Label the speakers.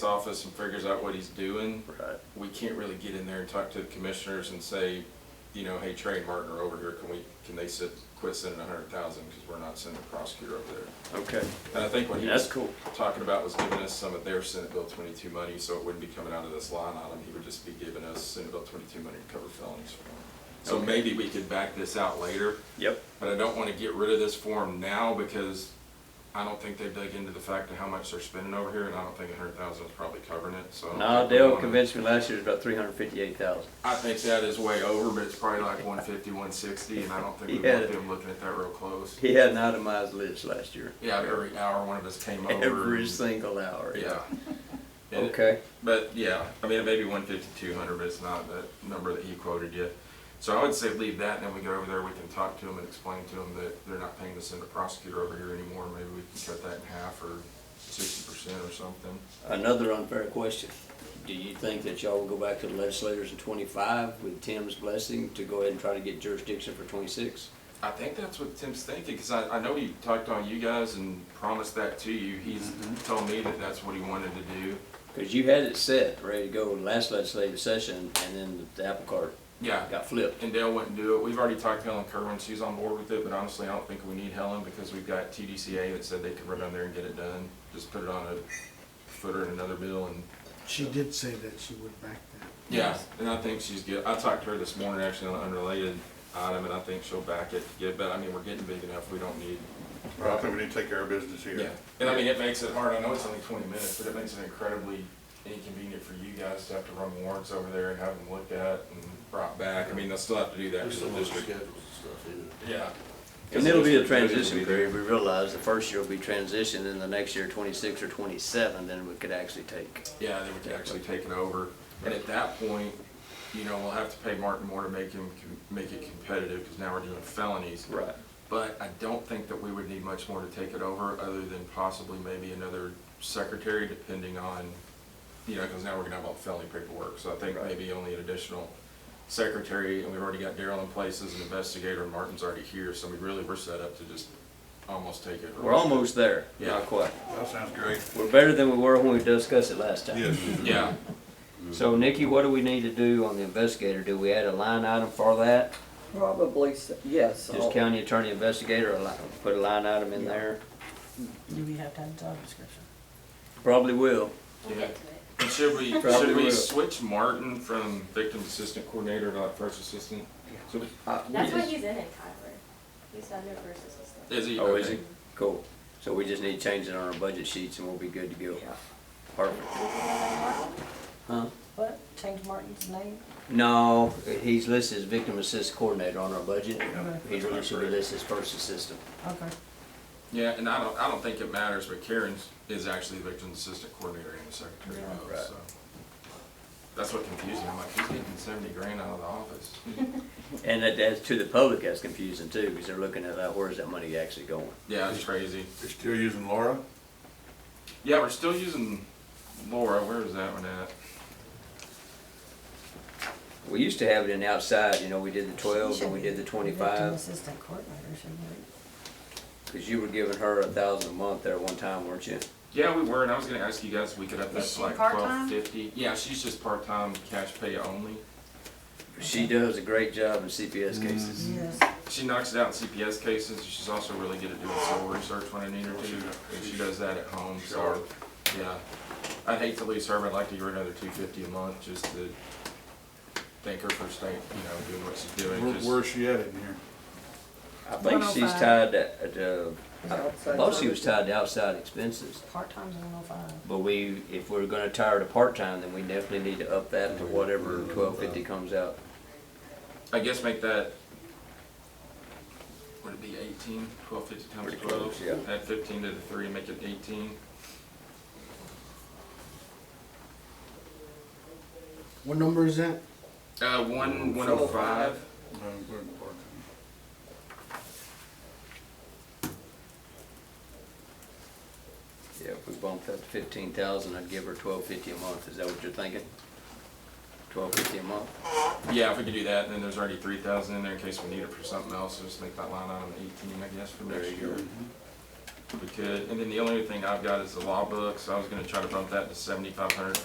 Speaker 1: office and figures out what he's doing,
Speaker 2: Right.
Speaker 1: we can't really get in there and talk to the commissioners and say, you know, hey, Trey and Martin are over here, can we, can they sit, quit sending a hundred thousand, because we're not sending a prosecutor over there.
Speaker 2: Okay.
Speaker 1: And I think what he
Speaker 2: That's
Speaker 1: was
Speaker 2: cool.
Speaker 1: talking about was giving us some of their Senate Bill twenty-two money, so it wouldn't be coming out of this line item, he would just be giving us Senate Bill twenty-two money to cover felonies for him. So
Speaker 2: Okay.
Speaker 1: maybe we could back this out later,
Speaker 2: Yep.
Speaker 1: but I don't wanna get rid of this form now, because I don't think they've dug into the fact of how much they're spending over here, and I don't think a hundred thousand is probably covering it, so. I don't
Speaker 2: Nah,
Speaker 1: think we
Speaker 2: Dale
Speaker 1: wanna-
Speaker 2: convinced me last year it was about three hundred fifty-eight thousand.
Speaker 1: I think that is way over, but it's probably like 150, 160, and I don't think we
Speaker 2: Yeah.
Speaker 1: want them looking at that real close.
Speaker 2: He had an itemized list last year.
Speaker 1: Yeah, every hour one of us came over.
Speaker 2: Every
Speaker 1: and-
Speaker 2: single hour.
Speaker 1: Yeah. And it-
Speaker 2: Okay.
Speaker 1: But yeah, I mean, it may be 150, 200, but it's not that number that he quoted yet. So I would say leave that, and then we go over there, we can talk to them and explain to them that they're not paying to send a prosecutor over here anymore. Maybe we can cut that in half or 60% or something.
Speaker 2: Another unfair question. Do you think that y'all will go back to the legislators in twenty-five with Tim's blessing to go ahead and try to get jurisdiction for twenty-six?
Speaker 1: I think that's what Tim's thinking, because I, I know he talked on you guys and promised that to you. He's told me that that's what he wanted to do.
Speaker 2: Cause you had it set, ready to go last legislative session, and then the apple cart
Speaker 1: Yeah,
Speaker 2: got flipped.
Speaker 1: and Dale wouldn't do it. We've already talked to Helen Kerwin, she's on board with it, but honestly, I don't think we need Helen because we've got TDCA that said they could run down there and get it done. Just put it on a footer in another bill and,
Speaker 3: She did say that she would back that.
Speaker 1: yeah, and I think she's good. I talked to her this morning actually on an unrelated item, and I think she'll back it. Yeah, but I mean, we're getting big enough, we don't need,
Speaker 4: Well, I think we need to take care of business
Speaker 1: yeah.
Speaker 4: here.
Speaker 1: And I mean, it makes it hard, I know it's only twenty minutes, but it makes it incredibly inconvenient for you guys to have to run warrants over there and have them looked at and brought back. I mean, they'll still have to do that
Speaker 5: There's so
Speaker 1: for the
Speaker 5: much
Speaker 1: district.
Speaker 5: schedules and stuff, yeah.
Speaker 1: Yeah.
Speaker 2: And it'll be a transition period. We realize the first year will be transition, and the next year, twenty-six or twenty-seven, then we could actually take.
Speaker 1: Yeah, then we can actually take it over. And at that point, you know, we'll have to pay Martin more to make him, make it competitive, because now we're doing felonies.
Speaker 2: Right.
Speaker 1: But I don't think that we would need much more to take it over, other than possibly maybe another secretary, depending on, you know, because now we're gonna have all the felony paperwork, so I think
Speaker 2: Right.
Speaker 1: maybe only an additional secretary, and we've already got Daryl in place as an investigator, and Martin's already here, so we really, we're set up to just almost take it.
Speaker 2: We're almost there,
Speaker 1: Yeah.
Speaker 2: not quite.
Speaker 4: That sounds great.
Speaker 2: We're better than we were when we discussed it last time.
Speaker 4: Yes.
Speaker 1: Yeah,
Speaker 2: So Nikki, what do we need to do on the investigator? Do we add a line item for that?
Speaker 6: Probably, so- yes.
Speaker 2: Just
Speaker 6: I'll-
Speaker 2: county attorney investigator, a li- put a line item in there?
Speaker 7: Do we have to have a job description?
Speaker 2: Probably will.
Speaker 1: yeah. And Should we, should
Speaker 2: Probably
Speaker 1: we
Speaker 2: will.
Speaker 1: switch Martin from victim assistant coordinator to like first assistant? So-
Speaker 2: Uh,
Speaker 8: That's why he's in it, Tyler. He's under first assistant.
Speaker 1: Is he?
Speaker 2: Oh, is
Speaker 1: Okay.
Speaker 2: he? Cool. So we just need to change it on our budget sheets and we'll be good to go. Perfect. Huh?
Speaker 7: What, change Martin's name?
Speaker 2: No, he's listed as victim assist coordinator on our budget. He's listed as his first assistant.
Speaker 7: Okay.
Speaker 1: Yeah, and I don't, I don't think it matters, but Karen is actually the victim assistant coordinator and the secretary
Speaker 7: Yeah.
Speaker 1: of
Speaker 2: Right.
Speaker 1: those, so. That's what confused me. I'm like, he's getting seventy grand out of the office.
Speaker 2: And that, that's to the public, that's confusing too, because they're looking at, that, where's that money actually going?
Speaker 1: Yeah, it's crazy.
Speaker 4: They're still using Laura?
Speaker 1: Yeah, we're still using Laura. Where is that one at?
Speaker 2: We used to have it in outside, you know, we did the twelve
Speaker 7: She
Speaker 2: and we did
Speaker 7: should
Speaker 2: the
Speaker 7: be victim
Speaker 2: twenty-five,
Speaker 7: Assistant coordinator, shouldn't we?
Speaker 2: because you were giving her a thousand a month there one time, weren't you?
Speaker 1: Yeah, we were, and I was gonna ask you guys if we could up that
Speaker 8: Is
Speaker 1: to
Speaker 8: she
Speaker 1: like twelve
Speaker 8: part-time?
Speaker 1: fifty. Yeah, she's just part-time, cash pay only.
Speaker 2: She does a great job in
Speaker 7: Mm-hmm.
Speaker 2: CPS cases.
Speaker 7: Yes.
Speaker 1: She knocks it out in CPS cases. and She's also really good at doing soil research when I need her to, and she does that at home. So, yeah, I'd hate to lose her. But I'd like to give her another two fifty a month just to thank her for staying, you know, doing what she's doing.
Speaker 4: Where,
Speaker 1: 'cause-
Speaker 4: where's she at in here?
Speaker 2: I think she's
Speaker 7: 105.
Speaker 2: tied to, uh, to, I
Speaker 6: Outside
Speaker 2: thought she was
Speaker 6: services.
Speaker 2: tied to outside expenses.
Speaker 7: Part-time's one oh five.
Speaker 2: But we, if we're gonna tire to part-time, then we definitely need to up that to whatever twelve fifty comes out.
Speaker 1: I guess make that. Would it be eighteen? Twelve fifty times
Speaker 2: Pretty
Speaker 1: twelve.
Speaker 2: close, yeah.
Speaker 1: Add fifteen to the three, make it eighteen.
Speaker 3: What number is that?
Speaker 1: Uh, one one oh five.
Speaker 4: No, we're in part-time.
Speaker 2: Yeah, if we bumped that to fifteen thousand, I'd give her twelve fifty a month, is that what you're thinking? Twelve fifty a month?
Speaker 1: Yeah, if we could do that, and then there's already three thousand in there in case we need it for something else. so Just make that line item eighteen, I guess, for
Speaker 2: There
Speaker 1: next
Speaker 2: you
Speaker 1: year.
Speaker 2: go.
Speaker 1: we could. And then the only other thing I've got is the law book, so I was gonna try to bump that to seventy-five hundred